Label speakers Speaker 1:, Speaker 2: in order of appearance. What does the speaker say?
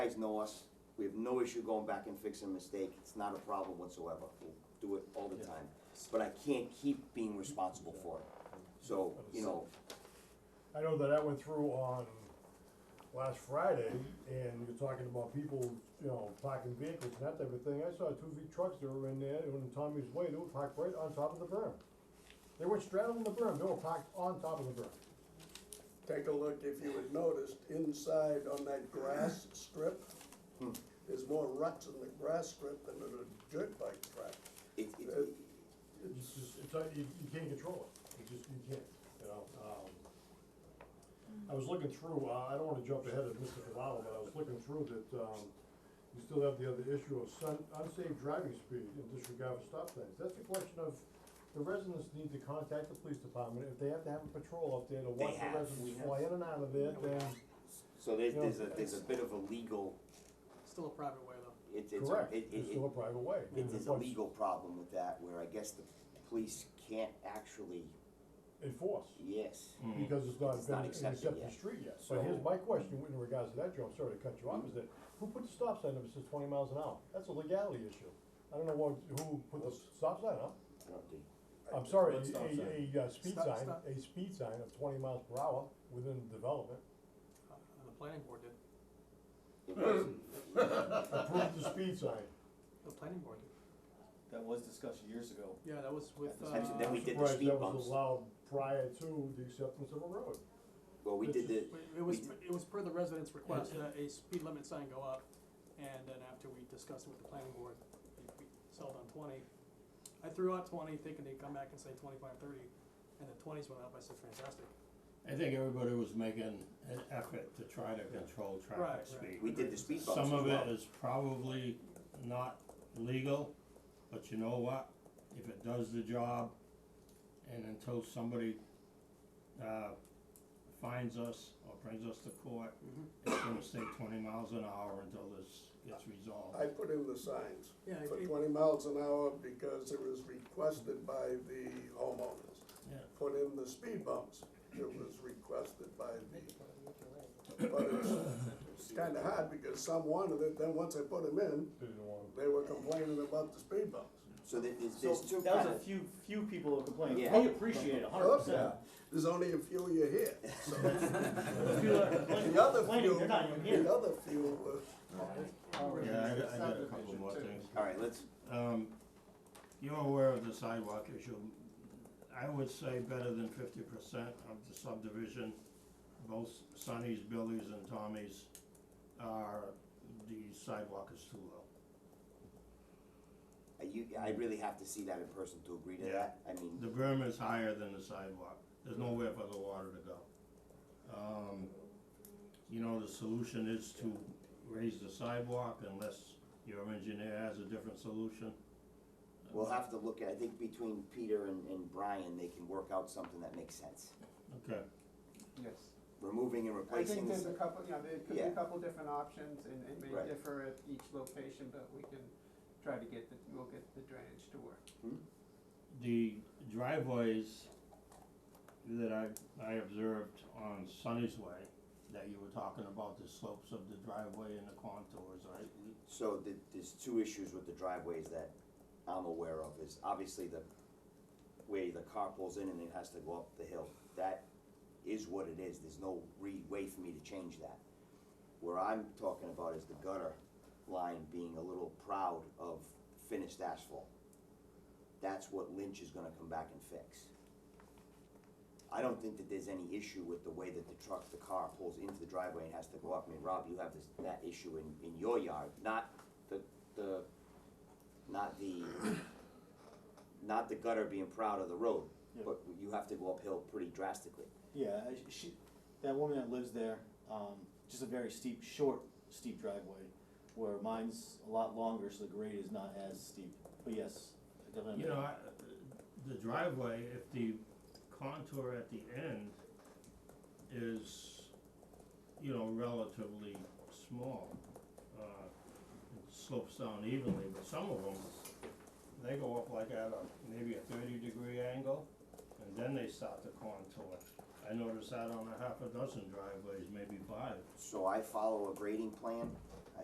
Speaker 1: guys know us, we have no issue going back and fixing a mistake, it's not a problem whatsoever, we'll do it all the time. But I can't keep being responsible for it, so, you know,
Speaker 2: I know that I went through on last Friday, and you're talking about people, you know, parking vehicles and that type of thing, I saw two big trucks that were in there, on Tommy's Way, they were parked right on top of the berm. They were straddling the berm, they were parked on top of the berm.
Speaker 3: Take a look, if you had noticed, inside on that grass strip,
Speaker 4: Hmm.
Speaker 3: there's more ruts in the grass strip than in a dirt bike track. Uh,
Speaker 1: it, it,
Speaker 2: It's just, it's, like you, you can't control it, you just, you can't, you know, um. I was looking through, uh, I don't wanna jump ahead of Mr. Cavalo, but I was looking through that, um, you still have the other issue of sun, unsafe driving speed and disregard for stop signs. That's a question of, the residents need to contact the police department, if they have to have a patrol up there to watch the
Speaker 1: have, we
Speaker 2: residents
Speaker 1: have.
Speaker 2: fly in and out of it, then,
Speaker 1: so there's, there's a, there's a bit of a legal,
Speaker 5: Still a private way though.
Speaker 1: it's, it's, a-
Speaker 2: correct,
Speaker 1: it,
Speaker 2: it's
Speaker 1: it,
Speaker 2: still a private way.
Speaker 1: it,
Speaker 2: And
Speaker 1: there's a
Speaker 2: what's
Speaker 1: legal problem with that, where I guess the police can't actually,
Speaker 2: Enforce.
Speaker 1: yes.
Speaker 2: because it's not
Speaker 1: It's not
Speaker 2: been an
Speaker 1: accepted
Speaker 2: accepted
Speaker 1: yet.
Speaker 2: street yet.
Speaker 1: So-
Speaker 2: But here's my question in regards to that, Joe, I'm sorry to cut you off, is that who put the stop sign up that says twenty miles an hour? That's a legality issue. I don't know what, who put the stop sign up.
Speaker 1: I don't think-
Speaker 2: I'm sorry, a,
Speaker 4: What stop sign?
Speaker 2: a, a uh, speed
Speaker 5: Stop-
Speaker 2: sign,
Speaker 5: stop.
Speaker 2: a speed sign of twenty miles per hour within development.
Speaker 5: Uh, The planning board did.
Speaker 1: it wasn't-
Speaker 2: Approved the speed sign.
Speaker 5: The planning board did.
Speaker 4: That was discussed years ago.
Speaker 5: Yeah, that was with,
Speaker 4: At the
Speaker 5: uh,
Speaker 1: section, then we
Speaker 2: I'm
Speaker 1: did the
Speaker 2: surprised
Speaker 1: speed
Speaker 2: That was
Speaker 1: bumps.
Speaker 2: allowed prior to the acceptance of a road.
Speaker 1: Well, we did the,
Speaker 5: it- it was,
Speaker 1: we
Speaker 5: it was per the residents' request that a speed limit sign go up, and then after we discussed it with the planning board, we- we settled on twenty. I threw out twenty, thinking they'd come back and say twenty-five, thirty, and the twenties went up, I said, fantastic.
Speaker 6: I think everybody was making an effort to try to control
Speaker 5: Right, right.
Speaker 6: traffic speed.
Speaker 1: we did the speed bumps
Speaker 6: Some
Speaker 1: as
Speaker 6: of it
Speaker 1: well.
Speaker 6: is probably not legal, but you know what? If it does the job, and until somebody, uh, finds us or brings us to court, it's gonna stay twenty miles an hour until this gets resolved.
Speaker 3: I put in the signs
Speaker 5: Yeah,
Speaker 3: for
Speaker 5: it-
Speaker 3: twenty miles an hour because it was requested by the homeowners.
Speaker 6: Yeah.
Speaker 3: Put in the speed bumps, it was requested by the, but it's, it's kinda hard because some wanted it, then once I put them in,
Speaker 2: They didn't want
Speaker 3: they were complaining about the speed bumps.
Speaker 1: so there- there's,
Speaker 4: So
Speaker 1: there's two
Speaker 4: that was
Speaker 1: kind
Speaker 4: a
Speaker 1: of-
Speaker 4: few few people who complained.
Speaker 1: Yeah.
Speaker 4: We appreciate it, hundred percent.
Speaker 3: There's only a few you hear, so.
Speaker 4: The few that complained,
Speaker 3: The other
Speaker 4: complaining,
Speaker 3: few,
Speaker 4: they're not even
Speaker 3: the
Speaker 4: here.
Speaker 3: other few were.
Speaker 6: Yeah, I got, I got a couple more things.
Speaker 1: all right, let's,
Speaker 6: um, you're aware of the sidewalk issue. I would say better than fifty percent of the subdivision, both Sonny's, Billy's and Tommy's, are, the sidewalk is too low.
Speaker 1: I- you, I really have to see that in person to agree to
Speaker 6: Yeah.
Speaker 1: that, I mean,
Speaker 6: The berm is higher than the sidewalk, there's nowhere for the water to go. Um, you know, the solution is to raise the sidewalk unless your engineer has a different solution.
Speaker 1: we'll have to look at, I think between Peter and, and Brian, they can work out something that makes sense.
Speaker 6: Okay,
Speaker 7: Yes.
Speaker 1: Removing and
Speaker 7: I think
Speaker 1: replacing,
Speaker 7: there's a
Speaker 1: the-
Speaker 7: couple, you know, there could be
Speaker 1: Yeah.
Speaker 7: a couple different options and it may
Speaker 1: Right.
Speaker 7: differ at each location, but we can try to get the, we'll get the drainage to work.
Speaker 6: the driveways that I, I observed on Sunny's Way, that you were talking about the slopes of the driveway and the contours, right? We-
Speaker 1: so the, there's two issues with the driveways that I'm aware of, is obviously the, where the car pulls in and it has to go up the hill, that is what it is, there's no re, way for me to change that. Where I'm talking about is the gutter line being a little proud of finished asphalt. That's what Lynch is gonna come back and fix. I don't think that there's any issue with the way that the truck, the car pulls into the driveway and has to go up. I mean, Rob, you have this, that issue in, in your yard, not the, the, not the, not the gutter being proud of the road,
Speaker 4: Yeah.
Speaker 1: but you have to go uphill pretty drastically.
Speaker 8: Yeah, I- she, that woman that lives there, um, just a very steep, short, steep driveway, where mine's a lot longer, so the grade is not as steep, but yes, I definitely.
Speaker 6: You know, I, the driveway, if the contour at the end is, you know, relatively small, uh, it slopes down evenly, but some of them, they go up like at a, maybe a thirty degree angle, and then they start to contour. I noticed that on a half a dozen driveways, maybe five.
Speaker 1: So I follow a grading plan